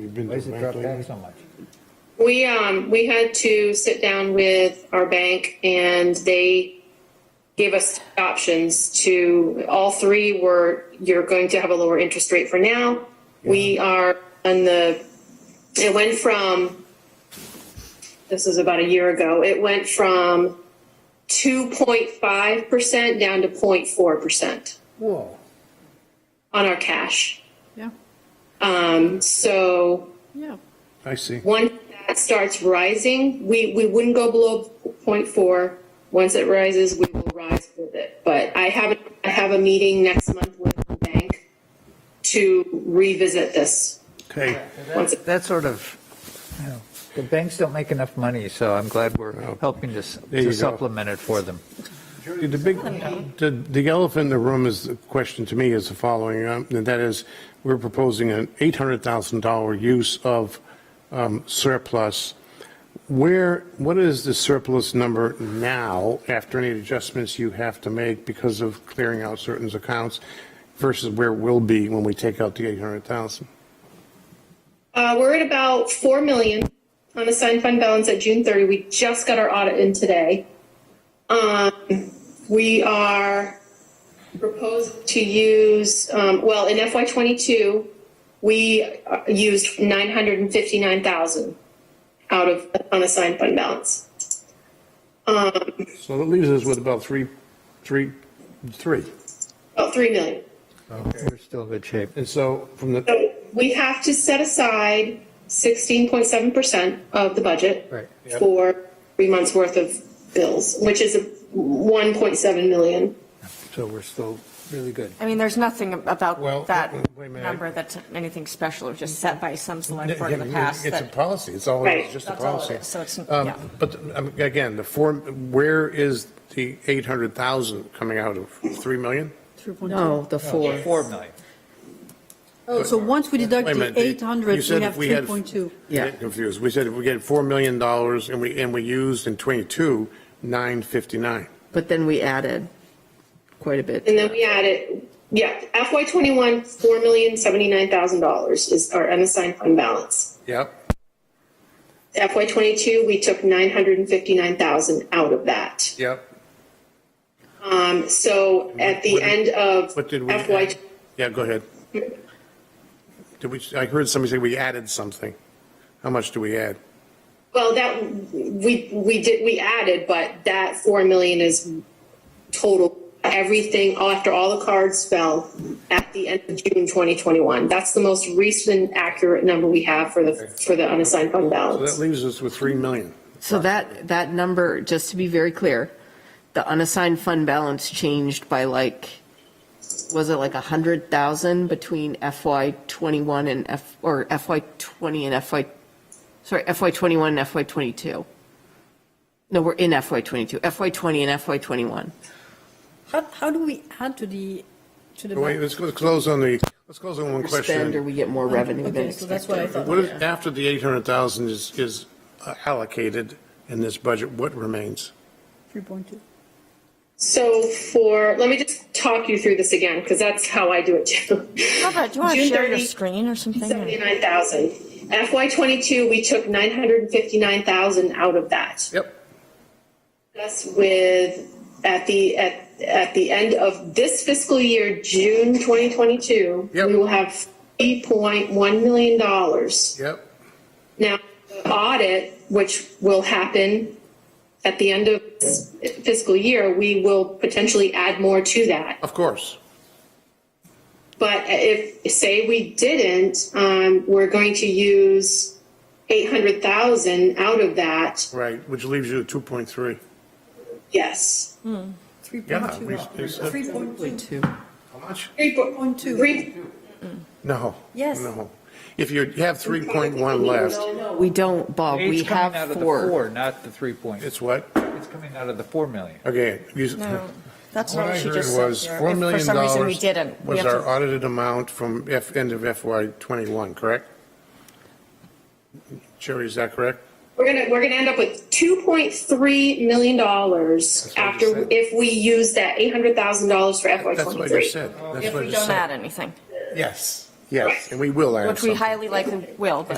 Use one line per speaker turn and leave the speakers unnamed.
You've been
Why
to
does
the
it drop
bank
back
lately?
so much?
We um we had to sit down with our bank and they gave us options to all three were you're going to have a lower interest rate for now. We are on the it went from this was about a year ago. It went from 2.5% down to 0.4%
Whoa,
on our cash.
Yeah,
Um, so
yeah.
I see.
Once that starts rising, we, we wouldn't go below 0.4. Once it rises, we will rise with it. But I have, I have a meeting next month with the bank to revisit this.
Okay,
Once it-
That sort of,
the banks don't make enough money, so I'm glad
Oh.
we're helping to s-
you go.
to supplement it for them.
Judy, the big, the, the elephant in the room is, the question to me is the following, um, and that is, we're proposing an $800,000 use of um, surplus. Where, what is the surplus number now, after any adjustments you have to make because of clearing out certain accounts, versus where it will be when we take out the 800,000?
Uh, we're at about 4 million on assigned fund balance at June 30. We just got our audit in today. Um, we are proposed to use, um, well, in FY '22, we uh, used 959,000 out of unassigned fund balance.
So that leaves us with about three, three, three.
About 3 million.
We're still in good shape.
And so from the,
So we have to set aside 16.7% of the budget.
Right.
For three months' worth of bills, which is a 1.7 million.
So we're still really good.
I mean, there's nothing
Well,
about that
wait a minute.
number that's anything special, it was just set by some select board in the past
It's a
that,
policy, it's all,
Right.
it's just a
That's all it
policy.
is. So it's-
Um,
yeah.
But um, again, the form, where is the 800,000 coming out of? 3 million?
No, the four.
Four million.
Oh, so once we deduct
Wait a
the
minute, you
800,
said
we have
if we had-
3.2.
I get Confused, we said if we get $4 million dollars and we, and we used in '22, 959.
But then we added quite a bit.
And then we added, yeah, FY twenty-one, four million seventy-nine thousand dollars is our unassigned fund balance.
Yep,
FY twenty-two, we took nine hundred and fifty-nine thousand out of that.
yep.
Um, so at the
What did-
end of
What did we?
FY,
add? Yeah, go ahead. Did we, I heard somebody say we added something. How much do we add?
well, that, we, we did, we added, but that four million is total, everything, all- after all the cards fell at the end of June twenty twenty-one. That's the most recent accurate number we have for the, for the unassigned fund
So
balance.
that leaves us with 3 million.
So that, that number, just to be very clear, the unassigned fund balance changed by like, was it like a hundred thousand between FY twenty-one and F, or FY twenty and FY, sorry, FY twenty-one and FY twenty-two? No, we're in FY twenty-two, FY twenty and FY twenty-one.
How, how do we add to the, to the?
Wait, let's go- close on the, let's close on one
Spend or
question.
we get more revenue than
Okay, so that's what I
expected.
thought.
What is, after the 800,000 is, is uh, allocated in this budget, what remains?
3.2.
So for, let me just talk you through this again, because that's how I do it too.
How about, do you want to
June
share
30,
your screen or something?
Seventy-nine thousand. FY twenty-two, we took nine hundred and fifty-nine thousand out of that.
Yep.
That's with, at the, at, at the end of this fiscal year, June twenty twenty-two,
Yep.
we will have eight point one million dollars.
Yep.
Now, the audit, which will happen at the end of this fiscal year, we will potentially add more to that.
Of course.
But if, say we didn't, um, we're going to use eight hundred thousand out of that,
Right, which leaves you at 2.3.
yes.
Yeah. we- we said-
3.2.
Two.
How much?
Three po-
3.2.
three-
No.
Yes.
No. If you have 3.1 left,
We don't, Bob, we
It's coming out
have
of the
four.
four, not the three point.
it's what?
It's coming out of the 4 million.
Okay. you-
No, that's
What
not
I
what she
heard
just said.
was
Sarah.
$4
If
million
For some reason, we didn't. We
was
have to-
our audited amount from F, end of FY '21, correct? Jerry, is that correct?
We're gonna, we're gonna end up with two point three million dollars
what I just
after,
said.
if we use that eight hundred thousand dollars for FY
That's what I just
twenty-three.
said. That's
If
what I
we
just
don't add
said.
anything.
Yes. Yes, and we will add
which we
something.
highly likely will, but.